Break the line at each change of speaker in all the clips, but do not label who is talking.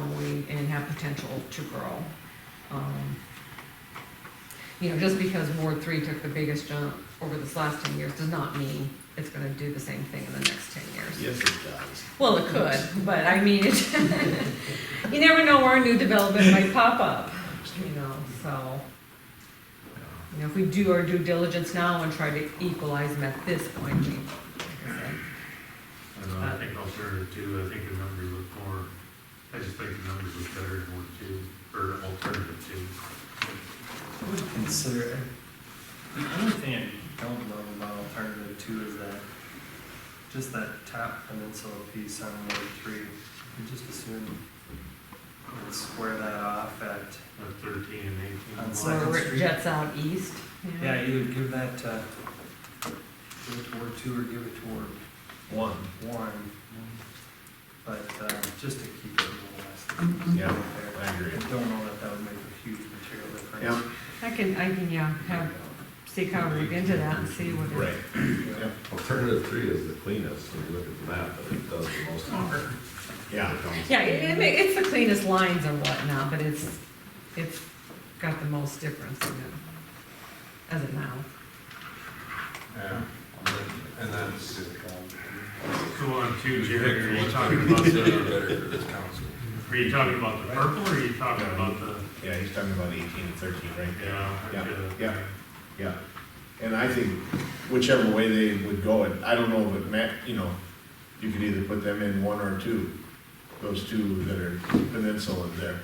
going and have potential to grow. Um, You know, just because Ward three took the biggest jump over this last ten years does not mean it's gonna do the same thing in the next ten years.
Yes, it does.
Well, it could, but I mean, it- you never know where a new development might pop up, you know, so. You know, if we do our due diligence now and try to equalize them at this point, we, like I said,
I don't know, I think alternative two, I think the numbers look more, I just think the numbers look better in one two, or alternative two.
I would consider it. The only thing I don't love about alternative two is that, just that top peninsula piece on Ward three, I just assume we'd square that off at,
At uh, thirteen and eighteen.
On
Well,
Second
where it
Street.
jets out east. you know?
yeah, either give that to, give it to Ward two or give it to Ward
One.
one. But, uh, just to keep it a little less.
Mm-hmm.
than
Yeah,
there.
I agree.
I don't know that that would make a huge material difference.
Yeah.
I can, I can, yeah, have, see how we look into that and see what it,
Right.
Alternative three is the cleanest, when you look at the map, but it does the most harm.
Yeah.
yeah, it, it ma- it's the cleanest lines and whatnot, but it's, it's got the most difference in it, as of now.
Yeah, and that's.
So on two,
You
Jerry, are you
pick
talking about the,
Better for this council.
are you talking about the purple, or are you talking about the,
Yeah, he's talking about eighteen and thirteen right there.
yeah?
Yeah,
okay.
yeah. Yeah. And I think whichever way they would go, and I don't know, but Matt, you know, you could either put them in one or two, those two that are peninsula there.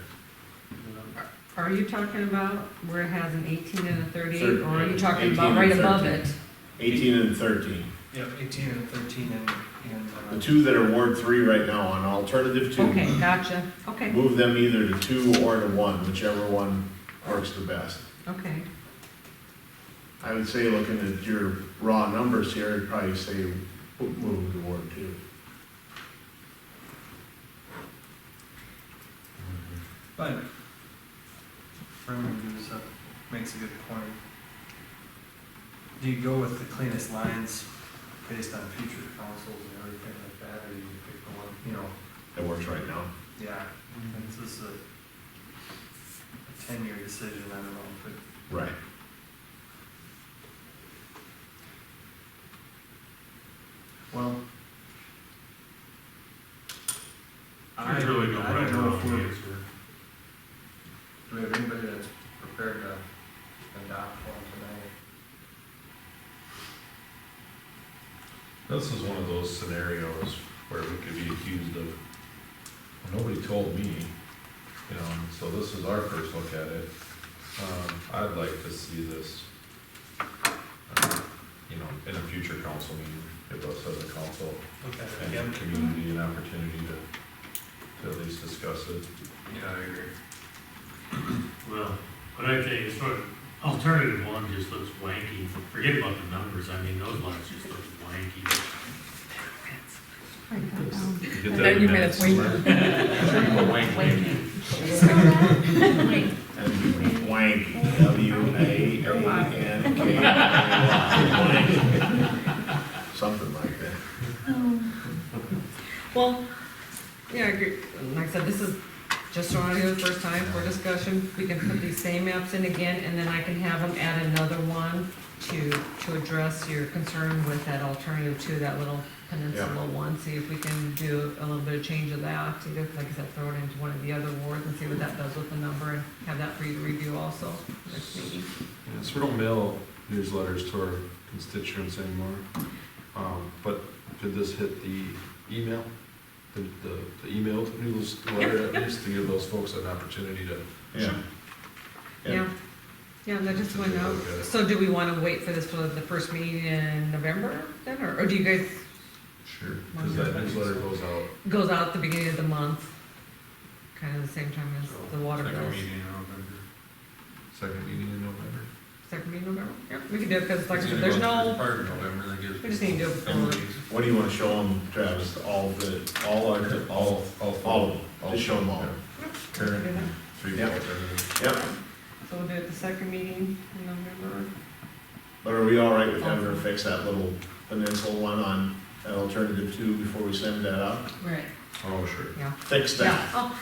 Are you talking about where it has an eighteen and a thirty-eight, or are you
Thirty-eight,
talking
18
about
and
right above
13.
it?
Eighteen and thirteen.
Yeah, eighteen and thirteen and, and. uh,
The two that are Ward three right now on alternative two.
Okay, gotcha, okay,
Move them either to two or to one, whichever one works the best.
okay.
I would say, looking at your raw numbers here, I'd probably say move to Ward two.
But Brendan gives up, makes a good point. Do you go with the cleanest lines based on future councils and everything like that, or you pick the one, you know,
That works right now.
yeah, since this is a a ten-year decision, I don't know, but
Right.
Well. I, I
There's really no right
don't
or
know
wrong
if we're, do
answer.
we have anybody that's prepared to adopt one tonight?
This is one of those scenarios where we could be accused of, "Well, nobody told me, you know, and so this is our first look at it. Um, I'd like to see this, uh, you know, in a future council meeting, give us as a council
Okay,
and community an opportunity to, to at least discuss it.
Yeah, I agree.
Well, but I think it's sort of, alternative one just looks wanky, forget about the numbers, I mean, those lines just look wanky.
Get
Now
that
you
in
made us
minutes
wait.
somewhere.
Wank, W A A N K. Y. Something like that.
Well, yeah, I agree. like I said, this is just thrown out here the first time for discussion. We can put these same maps in again, and then I can have them add another one to, to address your concern with that alternative to that little peninsula one. See if we can do a little bit of change of that, either, like I said, throw it into one of the other wards and see what that does with the number, and have that for you to review also next meeting.
Yeah, so we don't mail newsletters to our constituents anymore. Um, but did this hit the email? The, the, the emailed newsletter at least to give those folks an opportunity to.
Yeah. Yeah.
Yeah, yeah, that just went out.
Okay.
So do we want to wait for this for the first meeting in November then, or, or do you guys
Sure. Cause that newsletter goes out.
goes out at the beginning of the month, kind of the same time as the water
Second
bills.
meeting in November. Second meeting in November.
Second meeting in November? Yep, we can do it because like I said,
It's
there's
either going
no,
Part of November that gives.
we just need to do it
Ten
before.
days.
What do you wanna show them, Travis? All the, all our, all,
All, all.
all of them. Just show them all.
Current, and three
Yeah.
alternative.
Yep.
So we'll do it the second meeting in November.
But are we all right with having her fix that little peninsula one on that alternative two before we send that out?
Right.
Oh, sure.
Yeah,
Fix that.
yeah. Oh,